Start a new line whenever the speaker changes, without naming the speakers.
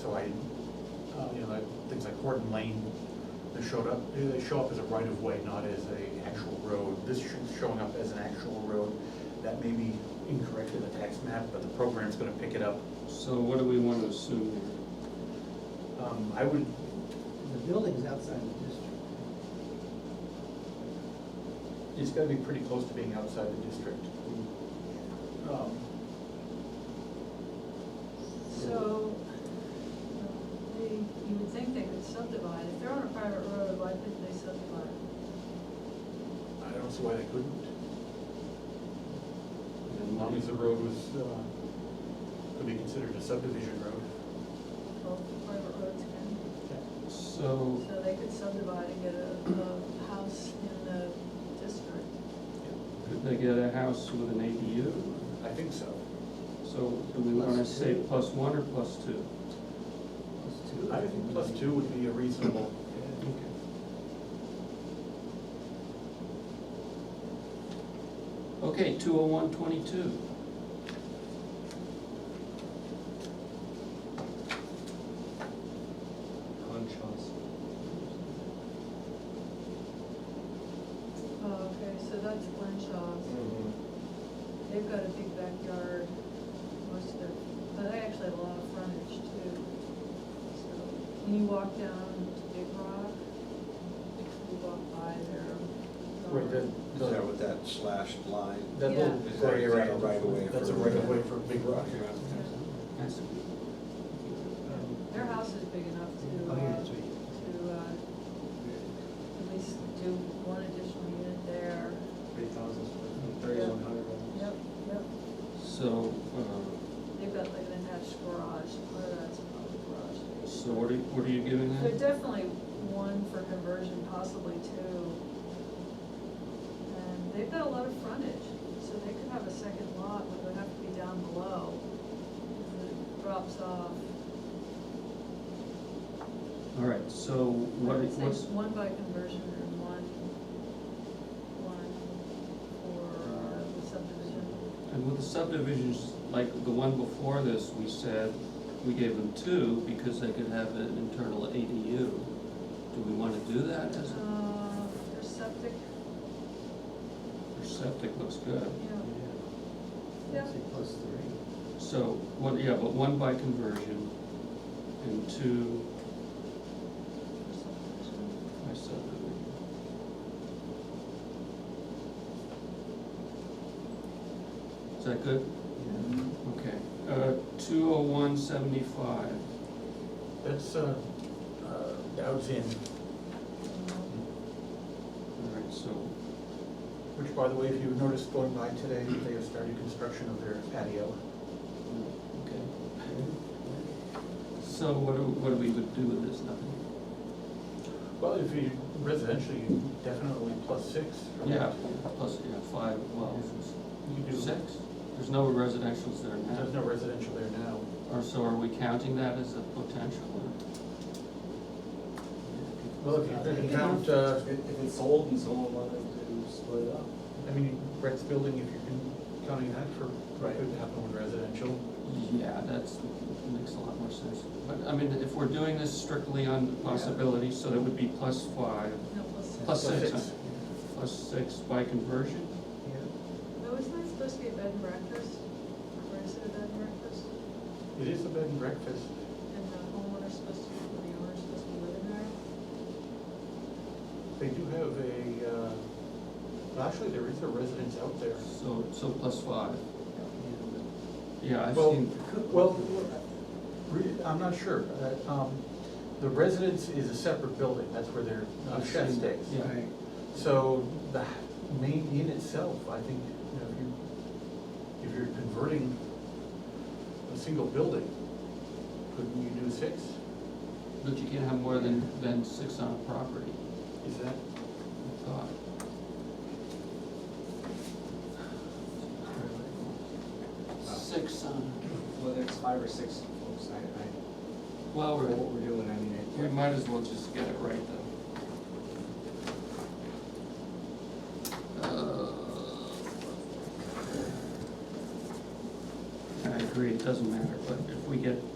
So I, uh, you know, like, things like Horton Lane, they showed up, they show up as a right of way, not as a actual road. This should showing up as an actual road. That may be incorrect in the tax map, but the program's gonna pick it up.
So what do we want to assume here?
Um, I would,
The building's outside the district.
it's gotta be pretty close to being outside the district. Um,
So, uh, they, you would think they could subdivide, if they're on a private road, why couldn't they subdivide?
I don't see why they couldn't. As long as the road was, uh, could be considered a subdivision road.
Well, private roads can,
So,
so they could subdivide and get a, a house in the district.
could they get a house with an ADU?
I think so.
So do we want to
Plus
say
two.
plus one or plus two?
Plus two.
I think plus two would be a reasonable,
Okay, two oh one twenty-two.
Oh, okay, so that's Blenshaw's, they've got a big backyard, most of their, but they actually have a lot of frontage too. So, Can you walk down to Big Rock? You walk by their.
right, that,
Is that
the-
with that slashed line?
that little
Yeah.
Is that-
gray
is that
area.
a right of way
That's a
for-
right of way for Big Rock.
Yeah.
That's
Their house is big enough to,
Oh,
uh,
yeah, that's right.
to, uh, at least do one additional unit there.
Three thousand,
thirty-one Yep, yep.
So, uh,
They've got like an attached garage, part of that's probably garage.
so what are, what are you giving
There's
that?
definitely one for conversion, possibly two. And they've got a lot of frontage, so they could have a second lot, but it would have to be down below. because It drops off.
All right, so what,
I would say
what's,
one by conversion and one, one for uh, the subdivision.
And with the subdivisions, like the one before this, we said, we gave them two because they could have an internal ADU. Do we wanna do that as a,
Uh, For septic,
their septic looks good.
yeah,
Yeah,
Yeah.
say plus three.
So, one, yeah, but one by conversion and two
for subdivision.
by subdivision. Is that good? Okay, uh, two oh one seventy-five,
That's, uh, uh, Dow's Inn,
all right, so
which by the way, if you noticed going by today, they have started construction of their patio.
Okay. So what do, what do we would do with this, nothing?
Well, if you residential, you definitely plus six. right?
Yeah, plus, yeah, five, well,
You can do.
six, there's no residentials there
There's
now.
no residential there now.
Or so are we counting that as a potential
Well, if you count, uh,
If if it's sold and someone wanted to split it up.
I mean, Brett's building, if you're con- counting that for,
Right.
could happen with residential.
or? Yeah, that's, makes a lot more sense. But, I mean, if we're doing this strictly on possibility, so that would be plus five,
No, plus,
plus six, huh? plus six by conversion?
Yeah,
no, isn't that supposed to be a bed and breakfast? Or is it a bed and breakfast?
It is a bed and breakfast.
And the homeowner's supposed to, or the owner's supposed to be living there?
They do have a, uh, well, actually, there is a residence out there.
So, so plus five,
yeah.
yeah, I've
Well,
seen,
Well, re- I'm not sure. Uh, um, The residence is a separate building, that's where their uh,
I've
chef
seen-
stays.
Yeah.
Right.
So the h- main inn itself, I think, you know, if you, if you're converting a single building, couldn't you do six?
but you can't have more than, than six on a property.
Is that?
thought. Six uh, on,
Whether it's five or six folks, I, I,
well,
for
we're-
what we're doing, I mean,
we
it.
might as well just get it right though. Uh, I agree, it doesn't matter, but if we get